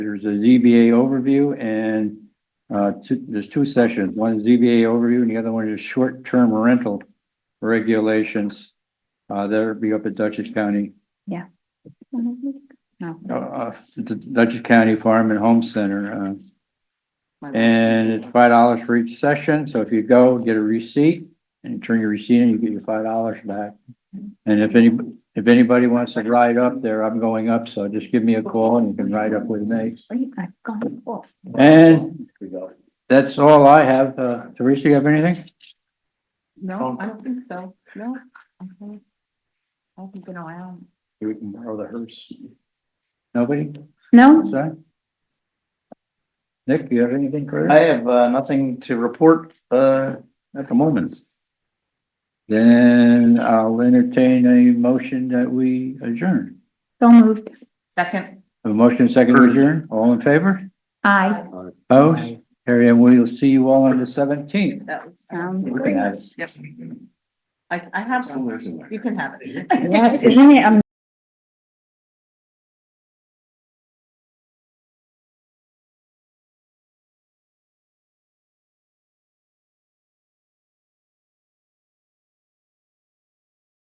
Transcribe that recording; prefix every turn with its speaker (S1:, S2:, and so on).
S1: There's a ZBA overview and uh, two- there's two sessions. One is ZBA overview and the other one is short-term rental regulations. Uh, That'll be up at Dutchess County,
S2: Mm-hmm. No.
S1: uh, uh, the Dutchess County Farm and Home Center. uh, And it's five dollars for each session, so if you go, get a receipt and turn your receipt in, you get your five dollars back. And if any, if anybody wants to ride up there, I'm going up, so just give me a call and you can ride up with me.
S2: Wait, I've gone off.
S1: And that's all I have. Uh, Teresa, you have anything?
S2: No, I don't think so. No. Okay. I haven't been around.
S1: We can borrow the hearse. Nobody?
S2: No,
S1: Sorry? Nick, you have anything, Chris?
S3: I have uh, nothing to report uh,
S1: At the moment. Then I'll entertain a motion that we adjourn.
S2: so moved. Second.
S1: A motion second to adjourn, all in favor?
S2: Aye.
S1: Opposed? Harry, and we'll see you all on the seventeenth.
S4: That was.
S2: Sounds
S1: good.
S4: Yep. I, I have some, you can have it.
S2: Yes, isn't it